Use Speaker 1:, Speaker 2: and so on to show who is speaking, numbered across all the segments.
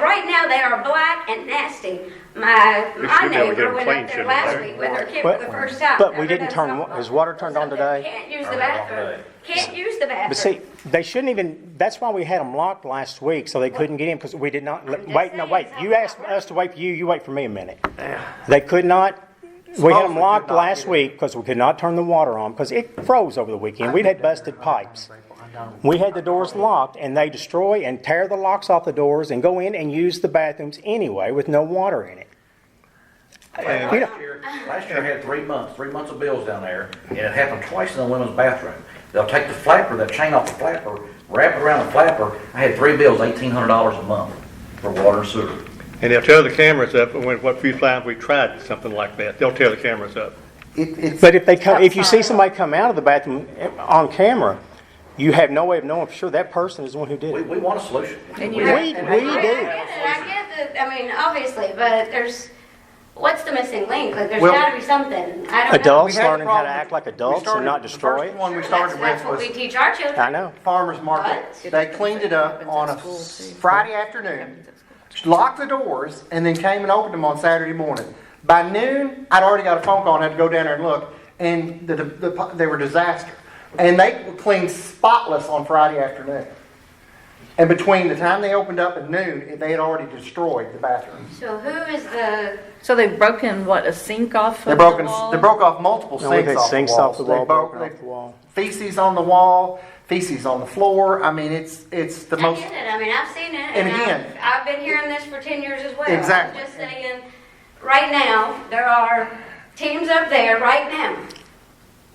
Speaker 1: now they are black and nasty. My, my
Speaker 2: should be able to get
Speaker 1: neighbor
Speaker 2: them
Speaker 1: went up
Speaker 2: clean,
Speaker 1: there
Speaker 2: shouldn't
Speaker 1: last
Speaker 2: they?
Speaker 1: week with her kid for
Speaker 3: But-
Speaker 1: the first time.
Speaker 3: but we
Speaker 1: Never
Speaker 3: didn't
Speaker 1: done
Speaker 3: turn
Speaker 1: something
Speaker 3: on- is
Speaker 1: like
Speaker 3: water
Speaker 1: that.
Speaker 3: turned on
Speaker 1: Something
Speaker 3: today?
Speaker 1: Can't use the
Speaker 4: Turned on today.
Speaker 1: bathroom. Can't use the bathroom.
Speaker 3: But see, they shouldn't even, that's why we had them locked last week, so they couldn't get in because we did not,
Speaker 1: just
Speaker 3: wait, no,
Speaker 1: saying,
Speaker 3: wait.
Speaker 1: it's
Speaker 3: You
Speaker 1: not
Speaker 3: asked
Speaker 1: right.
Speaker 3: us to wait for you, you wait for me a minute. They could not, we had
Speaker 4: Supposedly
Speaker 3: them
Speaker 4: could
Speaker 3: locked
Speaker 4: not
Speaker 3: last
Speaker 4: get in.
Speaker 3: week because we could not turn the water on because it froze over the weekend. We'd had busted pipes. We had the doors locked and they destroy and tear the locks off the doors and go in and use the bathrooms anyway with no water in it.
Speaker 4: And
Speaker 3: You know-
Speaker 4: Last year, last year I had three months, three months of bills down there, and it happened twice in the women's bathroom. They'll take the flapper, that chain off the flapper, wrap it around the flapper. I had three bills, eighteen hundred dollars a month for water and sewer.
Speaker 2: And they'll tear the cameras up, and when, what few times we tried something like that, they'll tear the cameras up.
Speaker 5: It, it's.
Speaker 3: But if they come, if you see somebody come out of the bathroom eh, on camera, you have no way of knowing for sure that person is the one who did
Speaker 4: We,
Speaker 3: it.
Speaker 4: we want a solution.
Speaker 3: We, we do.
Speaker 1: I get that, I mean, obviously, but there's, what's the missing link? Like, there's
Speaker 5: Well-
Speaker 1: gotta be something. I don't know.
Speaker 3: Adults learning how to act like adults and not destroy
Speaker 5: The first
Speaker 3: it.
Speaker 5: one we
Speaker 1: That's,
Speaker 5: started
Speaker 1: that's
Speaker 5: with
Speaker 1: what we
Speaker 5: was
Speaker 1: teach our children.
Speaker 3: I know.
Speaker 5: farmer's market.
Speaker 1: What?
Speaker 5: They cleaned it up on a Friday afternoon, locked the doors, and then came and opened them on Saturday morning. By noon, I'd already got a phone call and had to go down there and look, and the, the, the- they were disaster. And they were cleaned spotless on Friday afternoon. And between the time they opened up and noon, they had already destroyed the bathrooms.
Speaker 1: So who is the,
Speaker 6: So they've broken, what, a sink off
Speaker 5: They
Speaker 6: of
Speaker 5: broke,
Speaker 6: the
Speaker 5: in-
Speaker 6: wall?
Speaker 5: they broke off multiple
Speaker 3: No, we
Speaker 5: sinks
Speaker 3: had
Speaker 5: off the
Speaker 3: sinks off
Speaker 5: walls.
Speaker 3: the
Speaker 5: They
Speaker 3: wall,
Speaker 5: broke-
Speaker 3: broken off
Speaker 5: they-
Speaker 3: the wall.
Speaker 5: Feces on the wall, feces on the floor. I mean, it's, it's the
Speaker 1: I
Speaker 5: most,
Speaker 1: get it, I mean, I've seen it, and
Speaker 5: And again-
Speaker 1: I've, I've been hearing this for ten years as well.
Speaker 5: Exactly.
Speaker 1: I'm just saying, right now, there are teams up there right now,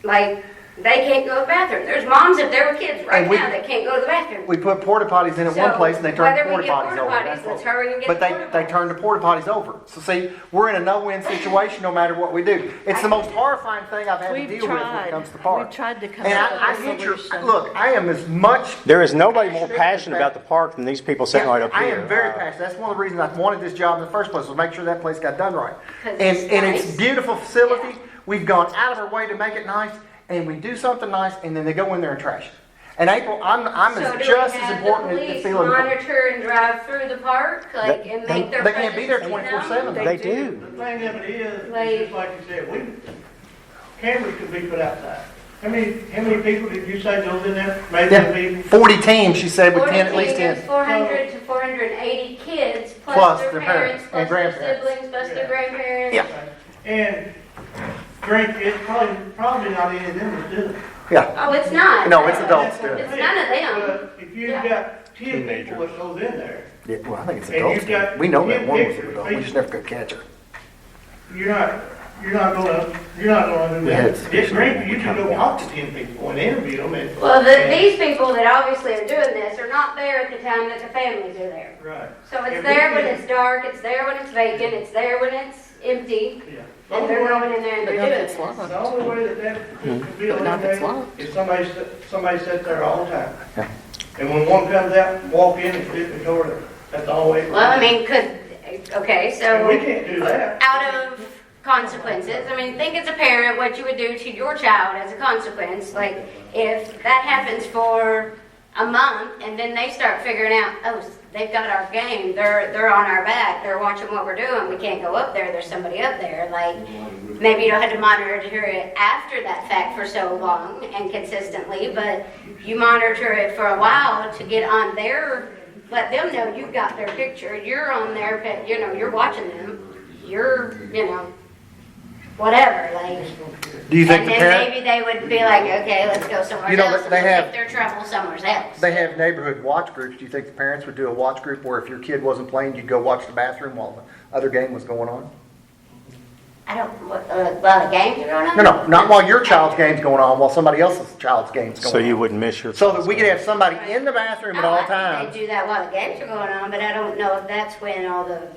Speaker 1: like, they can't go to the bathroom. There's moms up there with kids right
Speaker 5: And we-
Speaker 1: now that can't go to the bathroom.
Speaker 5: we put porta potties in at one
Speaker 1: So,
Speaker 5: place and they turned
Speaker 1: whether we
Speaker 5: porta
Speaker 1: get
Speaker 5: potties
Speaker 1: porta
Speaker 5: over.
Speaker 1: potties,
Speaker 5: That's
Speaker 1: let's
Speaker 5: what-
Speaker 1: hurry and get
Speaker 5: But
Speaker 1: the
Speaker 5: they,
Speaker 1: porta
Speaker 5: they
Speaker 1: potties.
Speaker 5: turned the porta potties over. So see, we're in a no-win situation no matter what we do. It's the most horrifying thing I've had to
Speaker 6: We've
Speaker 5: deal with when
Speaker 6: tried.
Speaker 5: it comes to parks.
Speaker 6: We've tried to come
Speaker 5: And
Speaker 6: up
Speaker 5: I, I
Speaker 6: with a
Speaker 5: get your,
Speaker 6: solution.
Speaker 5: look, I am as much
Speaker 3: There is nobody more passionate about the park than these people sitting right up
Speaker 5: I
Speaker 3: here. Uh,
Speaker 5: am very passionate. That's one of the reasons I wanted this job in the first place was make sure that place got done right.
Speaker 1: 'Cause
Speaker 5: And
Speaker 1: it's
Speaker 5: and it's
Speaker 1: nice.
Speaker 5: beautiful facility.
Speaker 1: Yeah.
Speaker 5: We've gone out of our way to make it nice, and we do something nice, and then they go in there and trash it. And April, I'm I'm
Speaker 1: So do
Speaker 5: as
Speaker 1: we
Speaker 5: just as
Speaker 1: have the
Speaker 5: important as
Speaker 1: police
Speaker 5: feeling.
Speaker 1: Monitor and drive through the park, like, and
Speaker 3: they-
Speaker 1: make their.
Speaker 5: They can't be there
Speaker 1: presence known?
Speaker 5: 24/7.
Speaker 3: They do.
Speaker 7: The thing of it is,
Speaker 1: Like-
Speaker 7: it's just like you said, we, cameras could be put outside. How many, how many people did you say goes in there? Maybe
Speaker 5: Yeah,
Speaker 7: they
Speaker 5: Forty teams, she said, with
Speaker 1: Forty
Speaker 5: ten at least ten.
Speaker 1: kids, four hundred to four hundred and eighty kids,
Speaker 5: Plus
Speaker 1: plus their
Speaker 5: their
Speaker 1: parents,
Speaker 5: parents and
Speaker 1: plus their
Speaker 5: grandparents.
Speaker 1: siblings, plus their
Speaker 7: Yeah.
Speaker 1: grandparents.
Speaker 5: Yeah.
Speaker 7: and drink, it's probably, probably not any of them that do it.
Speaker 5: Yeah,
Speaker 1: Oh, it's not.
Speaker 5: No, it's adults do it.
Speaker 1: It's none of them.
Speaker 7: But If you've got ten people that goes in there,
Speaker 5: yeah. Well, I think it's
Speaker 7: And you've
Speaker 5: adults.
Speaker 7: got-
Speaker 5: We know that
Speaker 7: you've
Speaker 5: one was
Speaker 7: pictured
Speaker 5: an adult. We just never could catch her.
Speaker 7: you're not, you're not gonna, you're not gonna do
Speaker 5: We had
Speaker 7: that.
Speaker 5: some
Speaker 7: Just drink,
Speaker 5: people
Speaker 7: you
Speaker 5: we
Speaker 7: can
Speaker 5: kinda
Speaker 7: go
Speaker 5: want.
Speaker 7: talk to ten people and interview them and.
Speaker 1: Well, the, these people that obviously are doing this are not there at the time that the families are there.
Speaker 7: Right.
Speaker 1: So
Speaker 7: If
Speaker 1: it's
Speaker 7: we
Speaker 1: there when
Speaker 7: can-
Speaker 1: it's dark, it's there when it's vacant, it's there when it's empty,
Speaker 7: Yeah.
Speaker 1: and they're going in there and
Speaker 6: But
Speaker 1: they're
Speaker 6: not if
Speaker 1: doing
Speaker 6: it's
Speaker 1: this.
Speaker 6: locked.
Speaker 7: The only way that that could be
Speaker 6: But not if it's
Speaker 7: eliminated
Speaker 6: locked.
Speaker 7: is somebody, sit- somebody sit there all the time. And when one comes out, walk in and fit the door there. That's the only way.
Speaker 1: Well, I mean, could, okay,
Speaker 7: And we
Speaker 1: so
Speaker 7: can't do that.
Speaker 1: out of consequences, I mean, think as a parent, what you would do to your child as a consequence, like if that happens for a month and then they start figuring out, oh, they've got our game, they're, they're on our back, they're watching what we're doing, we can't go up there, there's somebody up there, like, maybe you don't have to monitor it after that fact for so long and consistently, but you monitor it for a while to get on their, let them know you've got their picture, you're on their, pic- you know, you're watching them, you're, you know, whatever, like.
Speaker 5: Do you think
Speaker 1: And
Speaker 5: the
Speaker 1: then
Speaker 5: parent?
Speaker 1: maybe they would be like, okay, let's go somewhere
Speaker 5: You know,
Speaker 1: else,
Speaker 5: they-
Speaker 1: and
Speaker 5: they have-
Speaker 1: take their trouble somewhere else.
Speaker 5: They have neighborhood watch groups. Do you think the parents would do a watch group where if your kid wasn't playing, you'd go watch the bathroom while the other game was going on?
Speaker 1: I don't, what, uh, well, the games are going on?
Speaker 5: No, no, not while your child's game's going on, while somebody else's child's game's going on.
Speaker 3: So you wouldn't miss your.
Speaker 5: So that we could have somebody in the bathroom at
Speaker 1: Oh, I
Speaker 5: all
Speaker 1: think
Speaker 5: times.
Speaker 1: They do that while the games are going on, but I don't know if that's when all the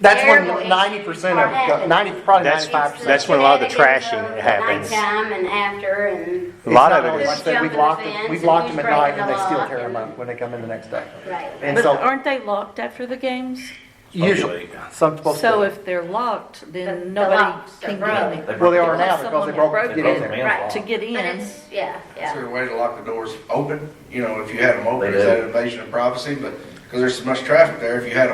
Speaker 5: That's
Speaker 1: Terrible
Speaker 5: when ninety percent
Speaker 1: issues are
Speaker 5: of,
Speaker 1: happening.
Speaker 5: ninety, probably
Speaker 3: That's-
Speaker 5: ninety-five
Speaker 1: It's the
Speaker 5: percent.
Speaker 3: that's when a lot of the
Speaker 1: shenanigans
Speaker 3: trashing
Speaker 1: of the
Speaker 3: happens.
Speaker 1: Nighttime and after and,
Speaker 3: A lot of
Speaker 1: It's not
Speaker 3: it
Speaker 5: Like I
Speaker 3: is.
Speaker 1: always-
Speaker 5: said, we've
Speaker 1: Jumping
Speaker 5: locked,
Speaker 1: the
Speaker 5: them-
Speaker 1: fence
Speaker 5: we've
Speaker 1: and
Speaker 5: locked
Speaker 1: who's
Speaker 5: them at night
Speaker 1: breaking
Speaker 5: and they
Speaker 1: the
Speaker 5: still
Speaker 1: law.
Speaker 5: tear them up when they come in the next day.
Speaker 1: right.
Speaker 5: And
Speaker 6: But
Speaker 5: so
Speaker 6: aren't they locked after the games?
Speaker 5: usually, some supposed
Speaker 6: So
Speaker 5: to,
Speaker 6: if they're locked,
Speaker 1: The- the
Speaker 6: then nobody
Speaker 1: locks are
Speaker 6: can
Speaker 1: broken.
Speaker 6: get in there.
Speaker 5: well, they are now
Speaker 6: Unless
Speaker 5: because they
Speaker 6: someone
Speaker 5: broke, to
Speaker 6: had
Speaker 5: get in
Speaker 6: broken
Speaker 5: there.
Speaker 1: Right.
Speaker 6: To get
Speaker 1: But
Speaker 6: in,
Speaker 1: it's, yeah,
Speaker 8: Is
Speaker 1: yeah.
Speaker 8: there a way to lock the doors open? You know, if you had them open,
Speaker 4: They
Speaker 8: is
Speaker 4: do.
Speaker 8: that an invasion of privacy? But, because there's so much traffic there, if you had